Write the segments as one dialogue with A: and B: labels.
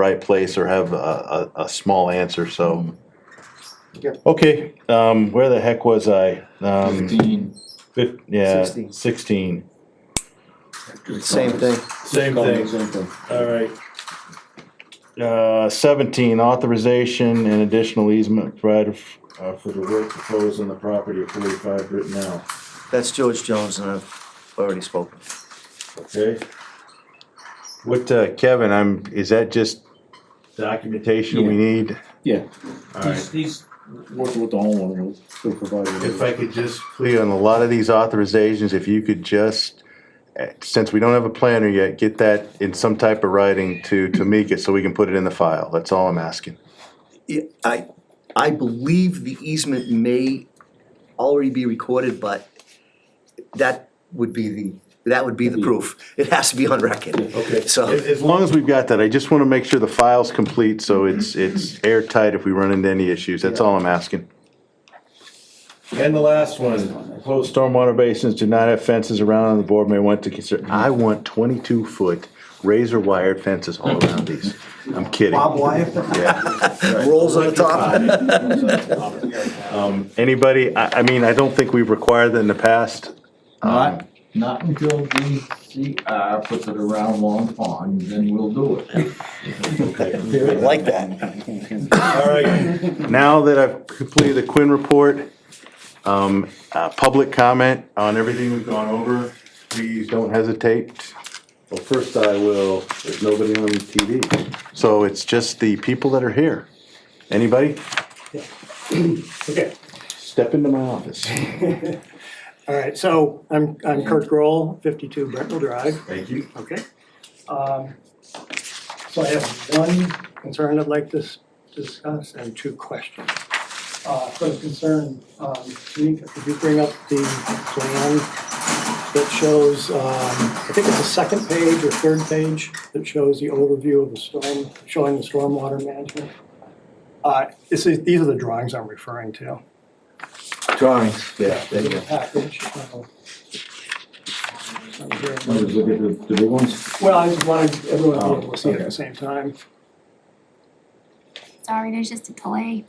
A: right place or have a, a, a small answer, so.
B: Yeah.
A: Okay, um, where the heck was I? Um,
C: Fifteen.
A: fif- yeah,
B: Sixteen.
A: sixteen.
B: Same thing.
A: Same
C: Call it
A: thing.
C: Same thing.
A: All right. Uh, seventeen, authorization and additional easement provided f- uh, for the work proposed on the property of forty-five Britton Now.
B: That's George Jones, and I've already spoken.
A: okay? What, uh, Kevin, I'm, is that just documentation we
C: Yeah.
A: need?
C: Yeah,
A: All right.
C: he's, he's working with the homeowner, he'll- he'll provide it.
A: If I could just, please, on a lot of these authorizations, if you could just, eh, since we don't have a planner yet, get that in some type of writing to Tamika so we can put it in the file. That's all I'm asking.
B: Yeah, I, I believe the easement may already be recorded, but that would be the, that would be the proof. It has to be on record.
A: Okay.
B: So-
A: As, as long as we've got that, I just wanna make sure the file's complete, so it's, it's airtight if we run into any issues. That's all I'm asking. And the last one, proposed stormwater basins do not have fences around and the board may want to consider. I want twenty-two foot razor wired fences all around these. I'm kidding. Yeah.
B: Rolls on the top.
A: Um, Anybody, I, I mean, I don't think we've required that in the past.
C: Not, not until DCR puts it around Long Pond, then we'll do it.
B: I like that.
A: All right. Now that I've completed the Quinn report, um, uh, public comment on everything we've gone over, please don't hesitate. Well, first I will, there's nobody on TV. So it's just the people that are here. Anybody?
D: Okay,
A: Step into my office.
D: all right, so I'm, I'm Kurt Grohl, fifty-two Brentwood Drive,
A: Thank you.
D: okay? Um, So I have one concern I'd like to s- discuss and two questions. Uh, first concern, um, Tamika, could you bring up the plan that shows, um, I think it's the second page or third page that shows the overview of the storm, showing the stormwater management? Uh, this is, these are the drawings I'm referring to.
B: Drawings, yeah, there you
D: in
B: go.
D: the package. uh, I'm here.
C: Wanna look at the, the big ones?
D: Well, I just wanted everyone to be able to see it at
B: Oh,
C: Okay.
D: the same time.
E: Sorry, there's just a delay.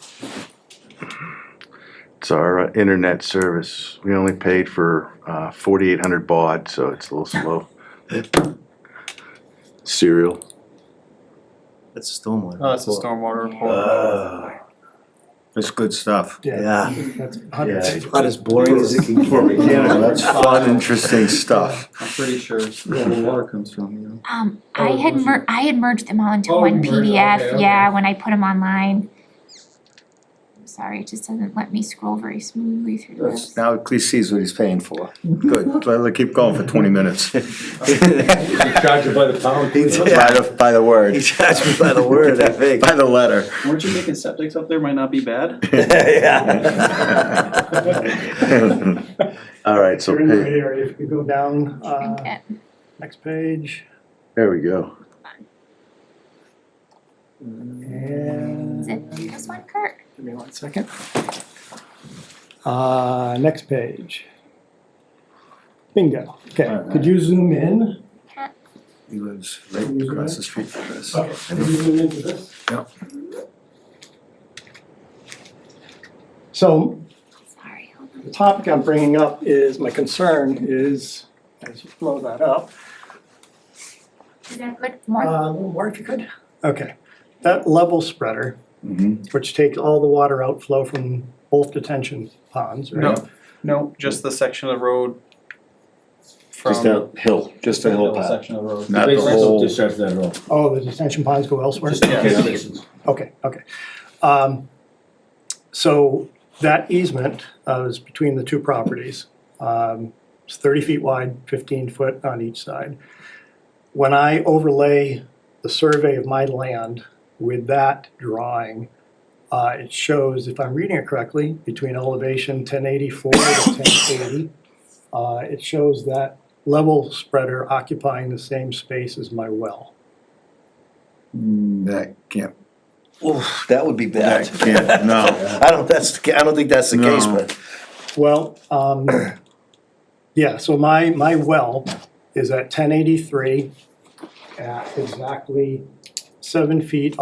A: It's our uh, internet service. We only paid for uh, 4,800 baud, so it's a little slow. Serial.
B: That's a stormwater.
F: Oh, it's a
B: report.
F: stormwater report.
A: Uh,
B: It's good stuff.
D: Yeah.
B: Yeah,
D: That's a hundred
A: Yeah.
D: pages.
B: not as boring as it can
C: For
B: get.
C: mechanical,
B: That's fun, interesting stuff.
F: I'm pretty sure it's where the water comes from, you know?
E: Um, I
F: Oh,
E: had
F: was
E: mer- I had merged them all into
F: Oh,
E: one
F: you merged- okay,
E: PDF,
F: okay.
E: yeah, when I put them online. I'm Sorry, it just doesn't let me scroll very smoothly through
B: That's-
E: this.
B: Now at least sees what he's paying for. Good, let let keep going for twenty minutes. By
C: Charge it by the pound.
B: the, by the word. He charged me by the word, I think. By the letter.
F: Weren't you making septics up there might not be bad?
B: Yeah.
A: All right, so
D: They're in the right
A: pay-
D: area. If you go down,
E: Shrink
D: uh,
E: it.
D: next page
A: there we go.
D: and,
E: Is it this one, Kurt?
D: give me one second. Uh, next page. Bingo. Okay, could you zoom in?
B: He lives right across the street from us.
D: Okay. Could you zoom into this?
B: Yep.
D: So
E: Sorry, hold on.
D: The topic I'm bringing up is, my concern is, as you blow that up,
E: Is that good? More?
D: uh, a little more if you could. Okay, that level spreader,
C: Mhm.
D: which takes all the water outflow from both detention ponds, right?
F: No, no, just the section of the road from.
B: Just a hill, just a hill
F: That
B: path.
F: Section of the road.
B: Not
C: They
B: the
C: don't
B: whole,
C: discharge that at all.
D: Oh, the detention ponds go elsewhere?
C: Just the catch basins.
D: Okay, okay. Um, So that easement uh, is between the two properties. Um, It's 30 feet wide, 15 foot on each side. When I overlay the survey of my land with that drawing, uh, it shows, if I'm reading it correctly, between elevation 1084 to 1080, uh, it shows that level spreader occupying the same space as my well.
B: that can't,
G: Oof, that would be
B: that
G: bad.
B: can't, no.
G: I don't, that's, the ca- I don't think that's the case,
B: No.
G: but
D: Well, um, yeah, so my, my well is at ten eighty-three at uh, exactly seven feet